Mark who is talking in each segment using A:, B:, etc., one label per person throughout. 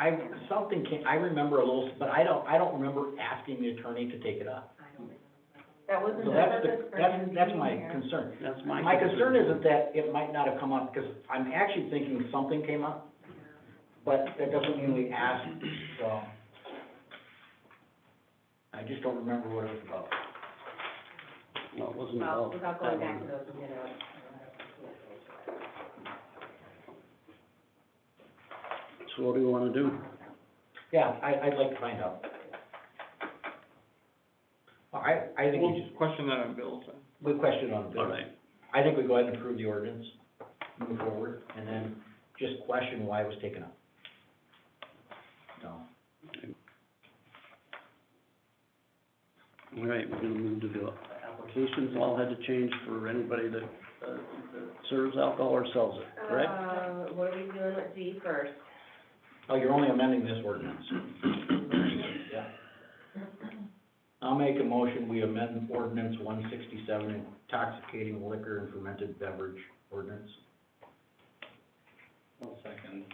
A: I, something came, I remember a little, but I don't, I don't remember asking the attorney to take it up.
B: That wasn't
A: So
B: the
A: that's
B: purpose
A: the,
B: for him
A: that's,
B: being
A: that's my
B: here.
A: concern.
C: That's my.
A: My concern isn't that it might not have come up, because I'm actually thinking something came up, but that doesn't mean we asked, so. I just don't remember what it was about.
C: No, it wasn't
B: Well,
C: about.
B: without going back to those, you know.
C: So what do you wanna do?
A: Yeah, I, I'd like to find out. Well, I, I think
D: We'll
A: we just,
D: question that on Bill's end.
A: we question on the bill.
C: All right,
A: I think we go ahead and approve the ordinance, move forward, and then just question why it was taken up. So,
C: all right, we're gonna move to the applications, all had to change for anybody that, uh, that serves alcohol or sells it, correct?
B: Uh, what are we doing with G first?
A: oh, you're only amending this ordinance. Yeah. I'll make a motion, we amend ordinance one sixty-seven, intoxicating liquor and fermented beverage ordinance.
E: One second.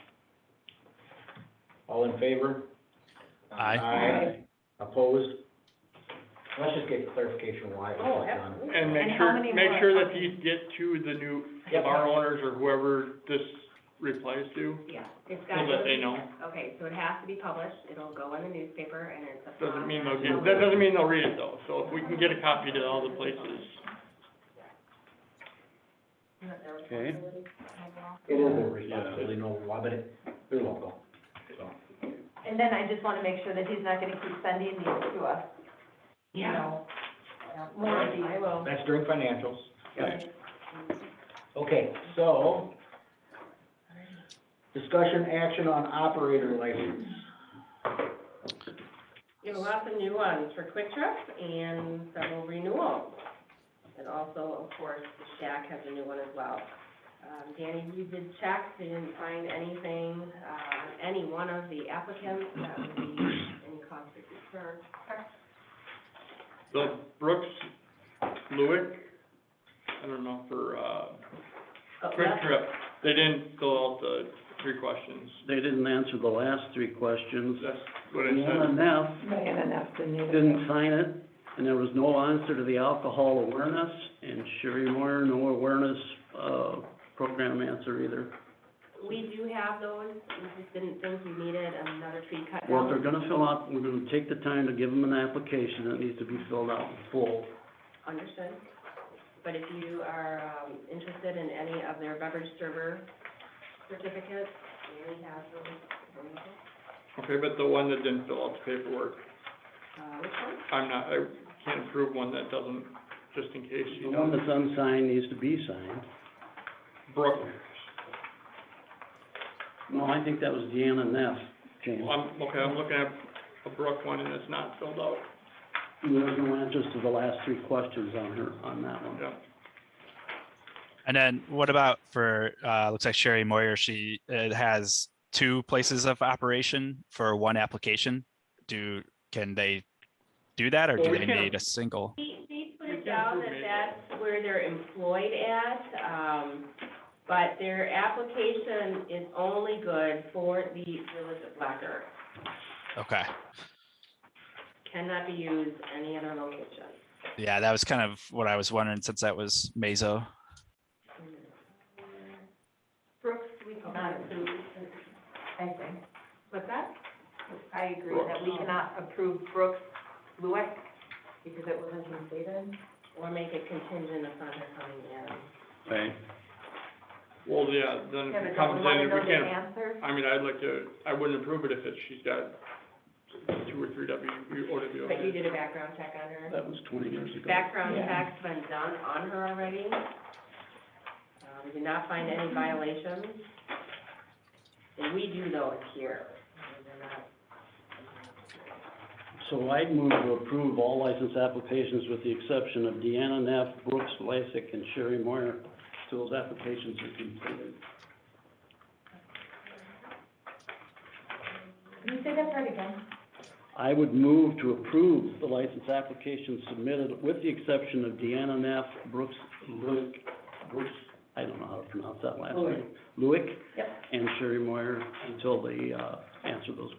A: All in favor? Aye. Opposed? Let's just get clarification why it was done.
D: And make
B: And how
D: sure,
B: many
D: make
B: more
D: sure
B: are
D: that
B: coming?
D: these get to the new
A: Yep.
D: bar owners or whoever this replies to.
B: Yeah, it's
D: So
B: got to.
D: that they
B: be-
D: know.
B: Okay, so it has to be published, it'll go in the newspaper, and it's a.
D: Doesn't mean they'll get, that doesn't mean they'll read it though, so if we can get a copy to all the places.
C: Okay,
A: It is a responsibility, no, law, but it, they're local, so.
F: And then I just wanna make sure that he's not gonna keep sending these to us, you know? More of these.
B: I will.
A: That's during financials.
C: Right.
A: Okay, so, discussion action on operator license.
B: You have lots of new ones for Quick Trip and several renewals. And also, of course, Shack has a new one as well. Um, Danny, you did check, they didn't find anything, uh, any one of the applicants that would be any cause for concern.
D: The Brooks Lewick, I don't know, for, uh,
B: Oh,
D: Quick
B: that's-
D: Trip, they didn't fill out the three questions.
C: they didn't answer the last three questions.
D: That's what
C: The
D: it said.
C: NNF
F: Diana enough to need
C: didn't sign it, and there was no answer to the alcohol awareness, and Sherry Moore, no awareness, uh, program answer either.
B: We do have those, we just didn't think we needed another tree cut
C: Well, if they're
B: down
C: gonna fill out, we're gonna take the time to give them an application that needs to be filled out in full.
B: understood. But if you are, um, interested in any of their beverage server certificates, we have those. available.
D: Okay, but the one that didn't fill out the paperwork,
B: Uh, which one?
D: I'm not, I can't approve one that doesn't, just in case,
C: The
D: you
C: one
D: know,
C: that's unsigned needs to be signed.
D: Brooke,
C: No, I think that was Deanna Neff, James.
D: I'm, okay, I'm looking at a Brooke one and it's not filled out,
C: There's no answers to the last three questions on her, on that one.
D: yeah.
G: And then what about for, uh, looks like Sherry Moyer, she, it has two places of operation for one application. Do, can they do that or
D: Well,
G: do
D: we
G: they
D: can't-
G: need a single?
B: They, they put
D: We
B: it
D: can't
B: down
D: approve
B: that
D: it.
B: that's where they're employed at, um, but their application is only good for the Village of Black Earth.
G: Okay,
B: Cannot be used any other location.
G: yeah, that was kind of what I was wondering since that was Mazo.
F: Brooks, we cannot approve, I think.
B: What's that?
F: I agree that we cannot approve Brooks Lueck because it wasn't completed.
B: Or make it contingent upon her coming in.
C: Right.
D: Well, yeah, then if
F: Kevin,
D: it
F: don't
D: comes
F: we
D: in,
F: wanna
D: if
F: know
D: we
F: the
D: can't,
F: answer?
D: I mean, I'd like to, I wouldn't approve it if it's, she's got two or three W, OWOs.
B: But you did a background check on her?
C: That was twenty years ago.
B: Background check's been done on her already. Uh, we did not find any violations. And we do know it's here. They're not
C: So I'd move to approve all license applications with the exception of Deanna Neff, Brooks Lysick, and Sherry Moyer. Till those applications are completed.
F: Can you say that part again?
C: I would move to approve the license applications submitted with the exception of Deanna Neff, Brooks Luick, Brooks I don't know how to pronounce that last
A: Luick.
C: name. Luick
F: Yep.
C: and Sherry Moyer until they, uh, answer those